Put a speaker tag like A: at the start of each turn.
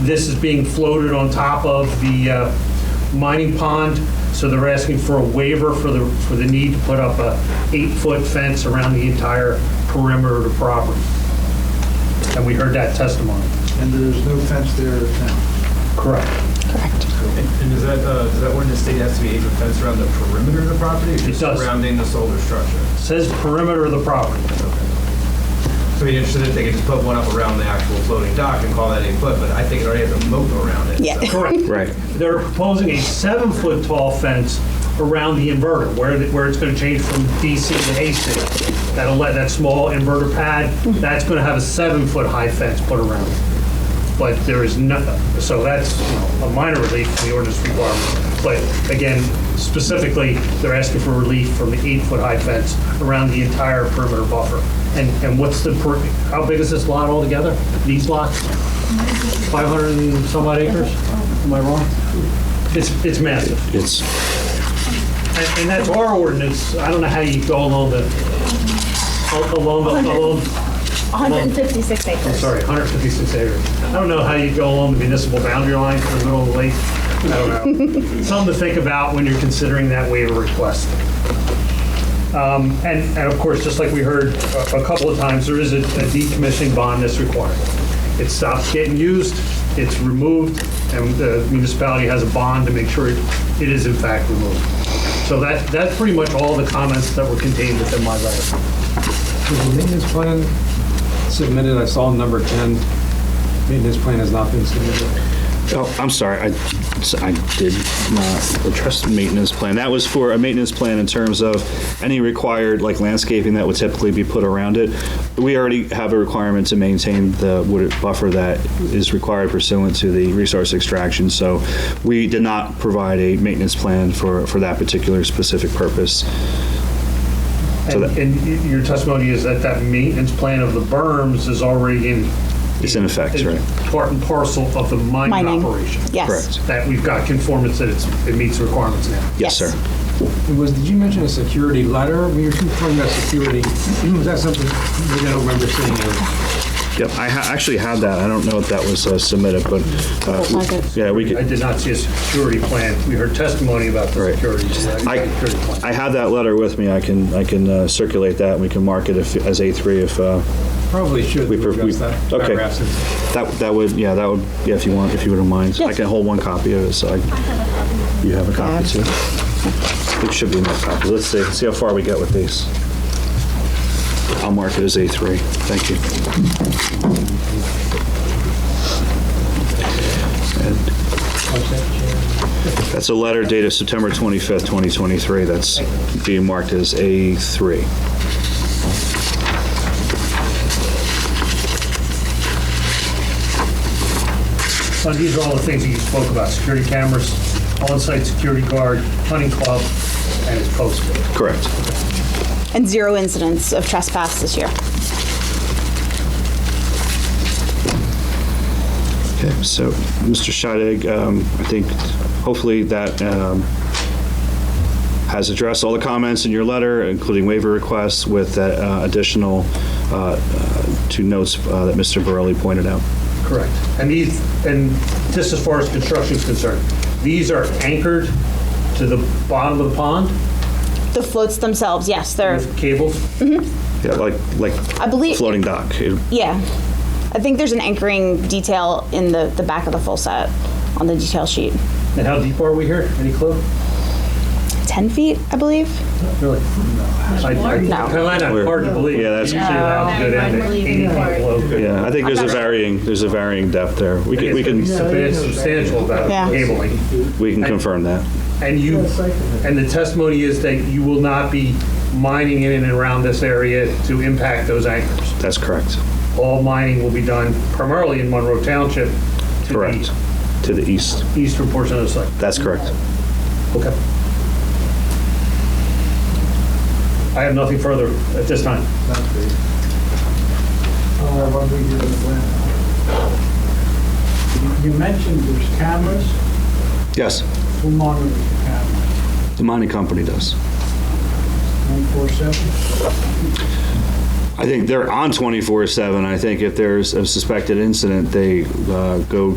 A: This is being floated on top of the uh, mining pond, so they're asking for a waiver for the, for the need to put up a eight-foot fence around the entire perimeter of the property. And we heard that testimony.
B: And there's no fence there now.
A: Correct.
C: Correct.
D: And is that, uh, does that ordinance state has to be eight foot fence around the perimeter of the property? or just
A: does.
D: Surrounding the solar structure?
A: Says perimeter of the property.
D: So it'd be interesting if they could just put one up around the actual floating dock and call that eight foot, but I think it already has a moat around it.
C: Yeah.
D: so-
A: Correct.
E: Right.
A: They're proposing a seven-foot tall fence around the inverter, where, the- where it's gonna change from DC to AC. That'll let, that small inverter pad, that's gonna have a seven-foot high fence put around it. But there is nothing, so that's you know, a minor relief from the ordinance requirement. But again, specifically, they're asking for relief from the eight-foot-high fence around the entire perimeter buffer. And, and what's the, per- how big is this lot altogether? These lots? 500 and some odd acres? Am I wrong? It's, it's massive.
E: It's,
A: And and that's our ordinance. I don't know how you go along the, along, the- along,
F: 156 acres.
A: I'm sorry, 156 acres. I don't know how you go along the municipal boundary line in the middle of the lake. I don't know. Something to think about when you're considering that waiver request. Um, And, and of course, just like we heard a a couple of times, there is a a decommissioning bond that's required. It stops getting used, it's removed, and the municipality has a bond to make sure it it is in fact removed. So that, that's pretty much all the comments that were contained within my letter.
G: Is the maintenance plan submitted? I saw number 10. Maintenance plan has not been submitted.
E: oh, I'm sorry, I, I did not address the maintenance plan. That was for a maintenance plan in terms of any required, like landscaping that would typically be put around it. We already have a requirement to maintain the wooded buffer that is required pursuant to the resource extraction. So we did not provide a maintenance plan for, for that particular specific purpose. So
A: And and y- your testimony is that that maintenance plan of the berms is already in.
E: It's in effect, right?
A: Part and parcel of the mining
C: Mining.
A: operation.
C: Yes.
E: Correct.
A: That we've got conformance that it's, it meets the requirements now.
C: Yes.
E: Yes, sir.
G: It Was, did you mention a security letter? When you were talking about security, was that something, maybe I don't remember seeing it.
E: Yep, I ha- actually had that. I don't know if that was uh, submitted, but, uh,
C: Wasn't.
E: yeah, we could.
A: I did not see a security plan. We heard testimony about the
E: Right.
A: security. so I
E: I,
A: didn't see a security plan.
E: I have that letter with me. I can, I can uh, circulate that. and We can mark it if, as A3 if, uh,
G: Probably should
E: We per- we-
G: address that.
E: okay.
G: paragraph since-
E: that, that would, yeah, that would, yeah, if you want, if you wouldn't mind. I
C: Yes.
E: can hold one copy of it, so I, you have a copy too. It should be in that copy. Let's see, see how far we get with these. I'll mark it as A3. Thank you. And That's a letter dated September 25th, 2023. That's being marked as A3.
A: So these are all the things that you spoke about, security cameras, on-site security guard, hunting club, and it's posted.
E: Correct.
C: And zero incidents of trespass this year.
E: Okay, so, Mr. Scheidegg, um, I think hopefully that um, has addressed all the comments in your letter, including waiver requests with that uh, additional uh, uh, two notes uh, that Mr. Borelli pointed out.
A: Correct. And these, and just as far as construction is concerned, these are anchored to the bottom of the pond
C: The floats themselves, yes, they're,
A: with cables.
E: Yeah, like, like
C: I believe,
E: floating dock. It-
C: yeah. I think there's an anchoring detail in the, the back of the full set on the detail sheet.
A: And how deep are we here? Any clue?
C: 10 feet, I believe.
A: Really? I- I-
C: No.
A: Kind of hard to believe.
E: Yeah, that's-
A: Usually allowed to go down to
F: No.
A: 80 feet below.
E: Yeah, I think there's a varying, there's a varying depth there. We can, we
A: It's
E: can,
A: substan- substantial about
C: Yeah.
A: cabling.
E: we can confirm that.
A: And you, and the testimony is that you will not be mining in and around this area to impact those anchors.
E: That's correct.
A: All mining will be done primarily in Monroe Township. to the
E: Correct. To the east.
A: Eastern portion of the site.
E: That's correct.
A: Okay. I have nothing further at this time.
B: Uh, when we get the plan. You you mentioned there's cameras,
E: Yes,
B: who monitors the cameras?
E: the mining company does.
B: 147?
E: I think they're on 24/7. I think if there's a suspected incident, they uh, go